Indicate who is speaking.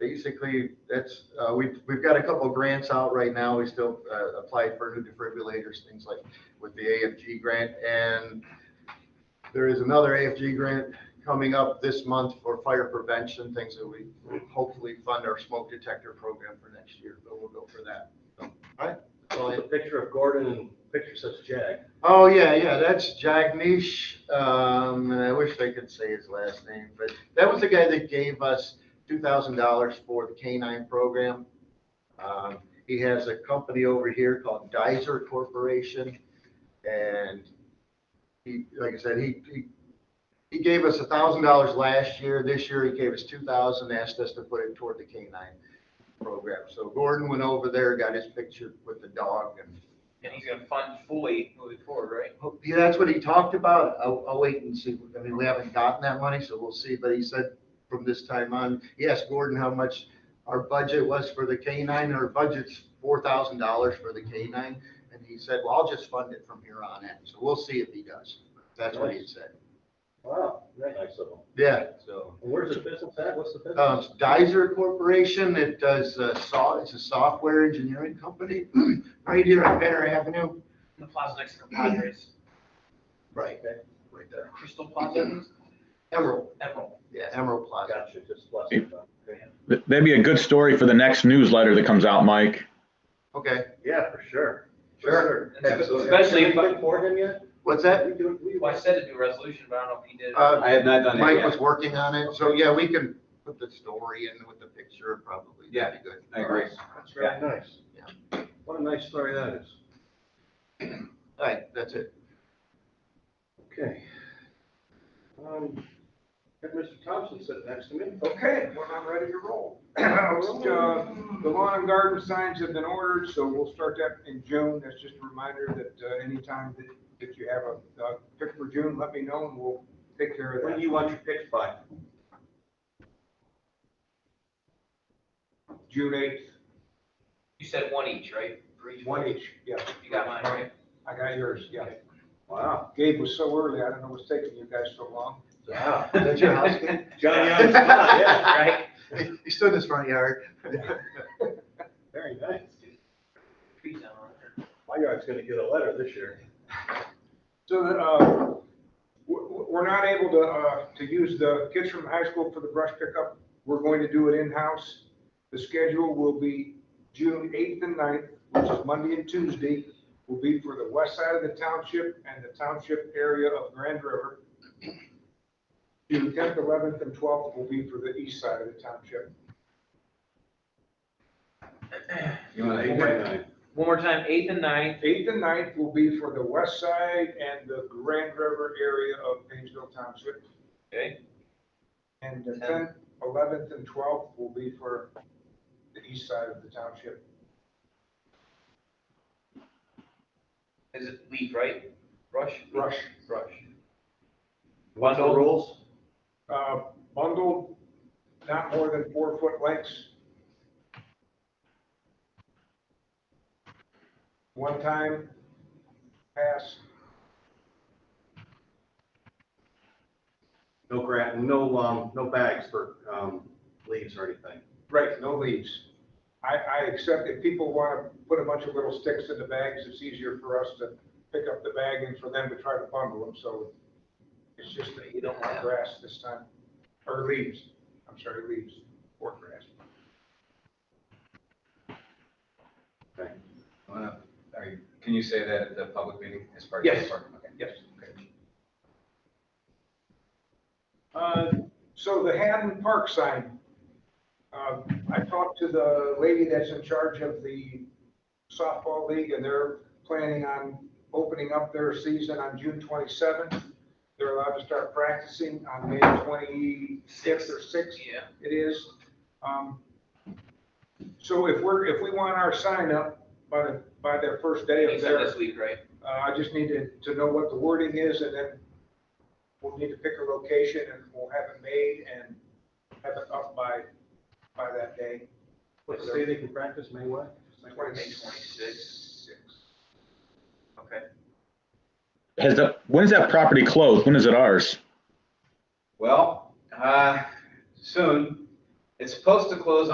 Speaker 1: basically, that's, uh, we've, we've got a couple grants out right now. We still, uh, applied for new defibrillators, things like with the AFG grant. And there is another AFG grant coming up this month for fire prevention, things that we will hopefully fund our smoke detector program for next year, but we'll go for that. So, All right. That's all I-
Speaker 2: The picture of Gordon and picture says Jag.
Speaker 1: Oh, yeah, yeah, that's Jagnish, um, and I wish I could say his last name, but that was the guy that gave us two thousand dollars for the K-9 program. Um, he has a company over here called Dizer Corporation, and he, like I said, he, he, he gave us a thousand dollars last year, this year he gave us two thousand, asked us to put it toward the K-9 program. So Gordon went over there, got his picture with the dog and
Speaker 3: And he's gonna fund fully moving forward, right?
Speaker 1: Yeah, that's what he talked about. I'll, I'll wait and see. I mean, we haven't gotten that money, so we'll see. But he said from this time on, he asked Gordon how much our budget was for the K nine. Our budget's four thousand dollars for the K nine. And he said, well, I'll just fund it from here on in. So we'll see if he does. That's what he said.
Speaker 2: Wow, very nice of them.
Speaker 1: Yeah, so.
Speaker 2: And where's the business at? What's the
Speaker 1: Uh,
Speaker 2: business?
Speaker 1: it's Dizer Corporation, it does, uh, saw, it's a software engineering company right here on Banner Avenue.
Speaker 3: The plaza next to Padres,
Speaker 1: Right, right there.
Speaker 3: Crystal Plaza,
Speaker 1: Emerald,
Speaker 3: Emerald.
Speaker 1: yeah, Emerald Plaza.
Speaker 2: Gotcha, just less than that.
Speaker 4: Th- That'd be a good story for the next newsletter that comes out, Mike.
Speaker 1: Okay,
Speaker 2: Yeah, for sure.
Speaker 1: Sure.
Speaker 2: Absolutely.
Speaker 3: Especially if-
Speaker 2: Have you done for him yet?
Speaker 1: what's that?
Speaker 2: We do- we-
Speaker 3: Well, I said to do a resolution, but I don't know if he did. it.
Speaker 1: Uh,
Speaker 5: I have not done it
Speaker 1: Mike was
Speaker 5: yet.
Speaker 1: working on it, so yeah, we can put the story in with the picture and probably. that'd be good.
Speaker 5: I agree.
Speaker 2: That's really nice. What a nice story that is.
Speaker 1: All right, that's it.
Speaker 2: Okay. Um, Had Mr. Thompson sit next to me. Oh,
Speaker 6: Okay, when I'm ready to roll. Uh, The lawn and garden signs have been ordered, so we'll start that in June. That's just a reminder that uh, anytime that, that you have a, a pick for June, let me know and we'll take care of
Speaker 2: When do
Speaker 6: that.
Speaker 2: you want your picks by?
Speaker 6: June eighth,
Speaker 3: You said one each, right? For each
Speaker 6: one each, yeah.
Speaker 3: You got mine, right?
Speaker 6: I got yours, yeah.
Speaker 2: Wow.
Speaker 6: Gabe was so early, I don't know what's taking you guys so long.
Speaker 2: Wow.
Speaker 1: Is that your house, Ken?
Speaker 2: Johnny on the spot, yeah.
Speaker 3: Right?
Speaker 1: He- He stood in his front yard.
Speaker 2: Very nice.
Speaker 3: Trees down on it.
Speaker 2: My yard's gonna get a letter this year.
Speaker 6: So, uh, we're, we're not able to, uh, to use the kids from the high school for the brush pickup. We're going to do it in-house. The schedule will be June eighth and 9th, which is Monday and Tuesday, will be for the west side of the township and the township area of Grand River. June tenth, eleventh, and twelfth will be for the east side of the township.
Speaker 5: You want
Speaker 2: Eight by nine.
Speaker 3: One more time, eighth and ninth,
Speaker 6: Eighth and 9th will be for the west side and the Grand River area of Painesville Township.
Speaker 3: okay?
Speaker 6: And the tenth, eleventh, and twelfth will be for the east side of the township.
Speaker 3: Is it leaf, right? Brush?
Speaker 6: Brush,
Speaker 3: Brush.
Speaker 2: What's the rules?
Speaker 6: uh, bundled, not more than four foot lengths. One time pass,
Speaker 2: No gra, no, um, no bags for, um, leaves or anything.
Speaker 6: right, no leaves. I, I accept if people want to put a bunch of little sticks in the bags, it's easier for us to pick up the bag and for them to try to bundle them, so it's just that you don't want grass this time, or leaves, I'm sorry, leaves, or grass.
Speaker 2: Okay.
Speaker 5: Wanna- are you- Can you say that at the public meeting as part of?
Speaker 6: Yes.
Speaker 5: the department? Okay.
Speaker 6: Yes.
Speaker 5: Okay.
Speaker 6: Uh, So the Haddon Park sign, um, I talked to the lady that's in charge of the softball league, and they're planning on opening up their season on June 27th. They're allowed to start practicing on May 26th or 6th
Speaker 3: Yeah.
Speaker 6: it is. Um, So if we're, if we want our sign up by the, by the first day
Speaker 3: He
Speaker 6: of
Speaker 3: said
Speaker 6: their,
Speaker 3: this week, right?
Speaker 6: uh, I just need to, to know what the wording is, and then we'll need to pick a location, and we'll have it made and have it up by, by that day.
Speaker 2: What, say they can practice May what?
Speaker 3: Twenty-six. Okay.
Speaker 4: Has the, when's that property closed? When is it ours?
Speaker 5: Well, uh, soon. It's supposed to close